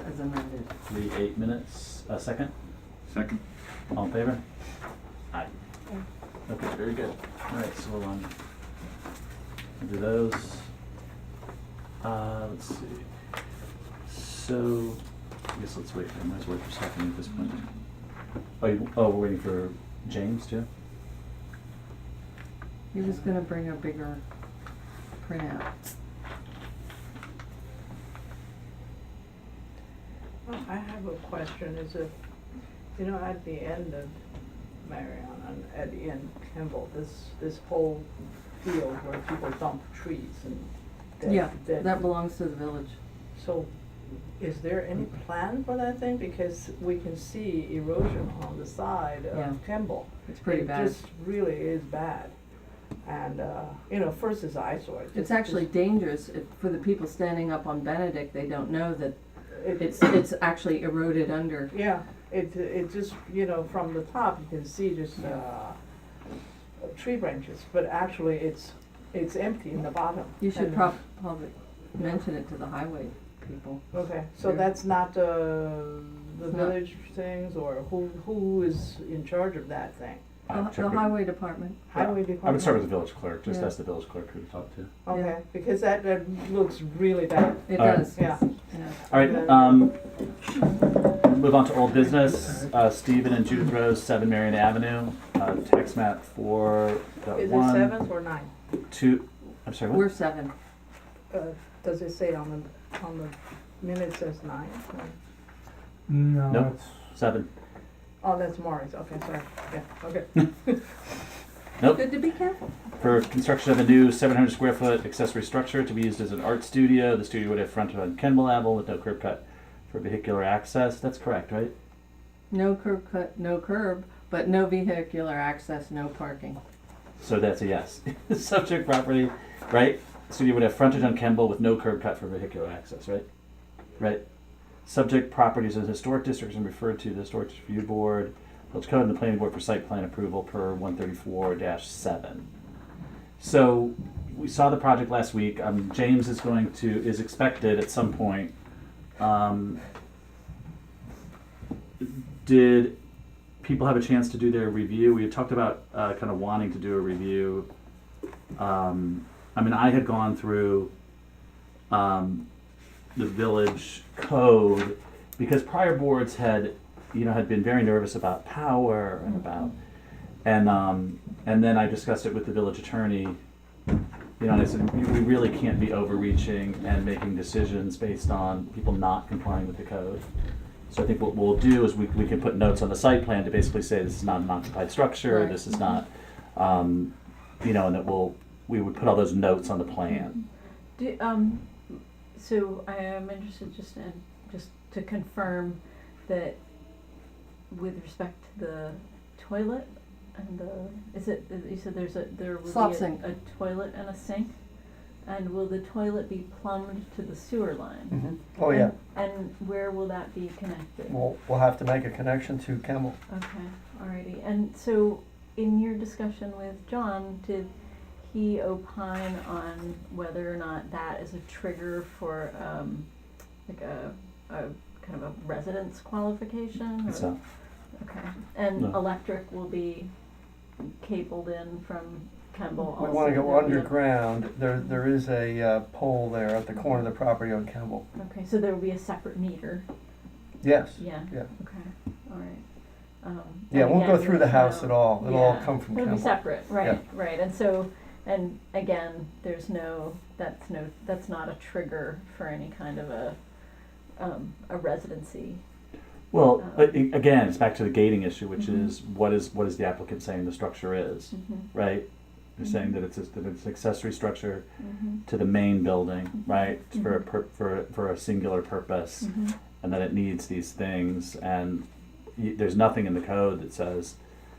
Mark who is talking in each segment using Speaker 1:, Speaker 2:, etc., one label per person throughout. Speaker 1: as amended.
Speaker 2: the eight minutes, a second,
Speaker 3: Second?
Speaker 2: all in favor? Aye.
Speaker 1: Aye.
Speaker 2: Okay, very good. All right, so we'll, um, we'll do those. Uh, let's see. So, I guess let's wait, I might as well wait for Stephanie at this point. Oh, you, oh, we're waiting for James too?
Speaker 1: He was gonna bring a bigger printout.
Speaker 4: Well, I have a question, is if, you know, at the end of Marion and at the end Kimball, this, this whole field where people dump trees and dead,
Speaker 1: Yeah,
Speaker 4: dead-
Speaker 1: that belongs to the village.
Speaker 4: So, is there any plan for that thing? Because we can see erosion on the side
Speaker 1: Yeah.
Speaker 4: of Kimball.
Speaker 1: It's pretty bad.
Speaker 4: It just really is bad. And, uh, you know, first is eyesore. it
Speaker 1: It's
Speaker 4: just-
Speaker 1: actually dangerous if, for the people standing up on Benedict, they don't know that
Speaker 4: it-
Speaker 1: it's, it's actually eroded under.
Speaker 4: Yeah, it, it just, you know, from the top, you can see just, uh, uh, tree branches, but actually it's, it's empty in the bottom.
Speaker 1: You should
Speaker 4: And-
Speaker 1: prob- probably mention it to the highway people.
Speaker 4: Okay, so
Speaker 1: Yeah.
Speaker 4: that's not, uh, the
Speaker 1: It's not-
Speaker 4: village things, or who, who is in charge of that thing?
Speaker 1: The,
Speaker 2: Uh, check
Speaker 1: the
Speaker 2: with-
Speaker 1: highway department.
Speaker 2: Yeah.
Speaker 4: Highway department?
Speaker 2: I would start with the village clerk, just
Speaker 1: Yeah.
Speaker 2: ask the village clerk who to talk to.
Speaker 4: Okay, because that, that looks really bad,
Speaker 1: It
Speaker 2: All right.
Speaker 1: does.
Speaker 4: yeah.
Speaker 1: Yeah.
Speaker 2: All right, um, move on to old business. Uh, Stephen and Judith Rose, seven Marion Avenue, uh, tax map for the
Speaker 4: Is it
Speaker 2: one,
Speaker 4: seventh or ninth?
Speaker 2: two, I'm sorry, what?
Speaker 1: We're seven.
Speaker 4: Uh, does it say on the, on the minutes as nine?
Speaker 5: No,
Speaker 2: Nope.
Speaker 5: it's
Speaker 2: Seven.
Speaker 4: Oh, that's Maury's, okay, sorry, yeah, okay.
Speaker 2: Nope.
Speaker 1: Good to be careful.
Speaker 2: For construction of a new seven hundred square foot accessory structure to be used as an art studio. The studio would have front on Kenneball Ave with no curb cut for vehicular access. That's correct, right?
Speaker 1: No curb cut, no curb, but no vehicular access, no parking.
Speaker 2: So that's a yes. Subject property, right? Studio would have frontage on Kemble with no curb cut for vehicular access, right? Right? Subject properties of historic districts and referred to the historic district review board, village code and the planning board for site plan approval per one thirty-four seven. So we saw the project last week. Um, James is going to, is expected at some point. Um, did people have a chance to do their review. We had talked about uh, kind of wanting to do a review. Um, I mean, I had gone through um, the village code because prior boards had, you know, had been very nervous about power and about, and um, and then I discussed it with the village attorney. You know, and I said we we really can't be overreaching and making decisions based on people not complying with the code. So I think what we'll do is we, we can put notes on the site plan to basically say this is not an occupied structure,
Speaker 1: Right.
Speaker 2: this is not, um, you know, and that we'll, we would put all those notes on the plan.
Speaker 6: Do, um, so I am interested just in, just to confirm that with respect to the toilet and the, is it, you said there's a, there will
Speaker 1: Slop
Speaker 6: be a,
Speaker 1: sink.
Speaker 6: a toilet and a sink? And will the toilet be plumbed to the sewer line?
Speaker 1: Mm-hmm.
Speaker 7: Oh, yeah,
Speaker 6: And where will that be connected?
Speaker 7: we'll, we'll have to make a connection to Kemmel.
Speaker 6: Okay, alrighty, and so in your discussion with John, did he opine on whether or not that is a trigger for, um, like a, a kind of a residence qualification? or-
Speaker 2: So,
Speaker 6: Okay, and
Speaker 2: No.
Speaker 6: electric will be cabled in from Kemble also?
Speaker 7: We wanna go
Speaker 6: there'll be a-
Speaker 7: underground, there, there is a uh, pole there at the corner of the property on Kemmel.
Speaker 6: Okay, so there will be a separate meter,
Speaker 7: Yes,
Speaker 6: yeah?
Speaker 7: Yeah.
Speaker 6: Okay, alright, um.
Speaker 7: yeah, it
Speaker 6: and
Speaker 7: won't go
Speaker 6: again,
Speaker 7: through the
Speaker 6: there's
Speaker 7: house
Speaker 6: no-
Speaker 7: at all, it'll all
Speaker 6: Yeah.
Speaker 7: come from
Speaker 6: It'll be
Speaker 7: Kemmel.
Speaker 6: separate, right, right, and so, and again, there's no, that's no, that's not a trigger for any kind of a, um, a residency.
Speaker 2: well,
Speaker 6: Uh,
Speaker 2: a- a- again, it's back to the gating issue, which
Speaker 6: Mhm.
Speaker 2: is what is, what is the applicant saying the structure is,
Speaker 6: Mhm,
Speaker 2: right? They're saying
Speaker 6: Mhm.
Speaker 2: that it's, a- that it's an accessory structure
Speaker 6: mhm,
Speaker 2: to the main building,
Speaker 6: Mhm.
Speaker 2: right? For a
Speaker 6: Mhm.
Speaker 2: per, for, a- for a singular purpose.
Speaker 6: mhm.
Speaker 2: and that it needs these things and y- there's nothing in the code that says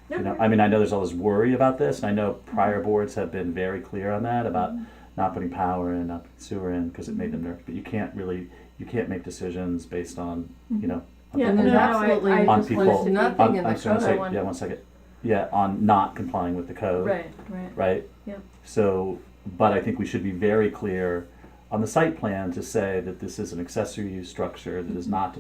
Speaker 2: you know i mean i know there's all this worry about this and i know
Speaker 6: Mm-hmm.
Speaker 2: prior boards have been very clear on that about
Speaker 6: Mhm,
Speaker 2: not putting power in not putting sewer in because it made them nervous but you can't really you can't make decisions based on you know on
Speaker 6: Yeah,
Speaker 1: And
Speaker 2: people-
Speaker 1: there's
Speaker 6: no, I-
Speaker 1: absolutely
Speaker 6: I
Speaker 2: On
Speaker 6: just wanted
Speaker 2: people-
Speaker 6: to be-
Speaker 1: nothing
Speaker 2: on,
Speaker 1: in
Speaker 2: I'm
Speaker 1: the
Speaker 2: sorry, one
Speaker 1: code.
Speaker 2: sec- yeah one second yeah on not complying with the code
Speaker 6: Right, right,
Speaker 2: right?
Speaker 6: Yep.
Speaker 2: So, but I think we should be
Speaker 1: Mm-hmm.
Speaker 2: very clear on the site plan to say that this is an accessory use structure that is not to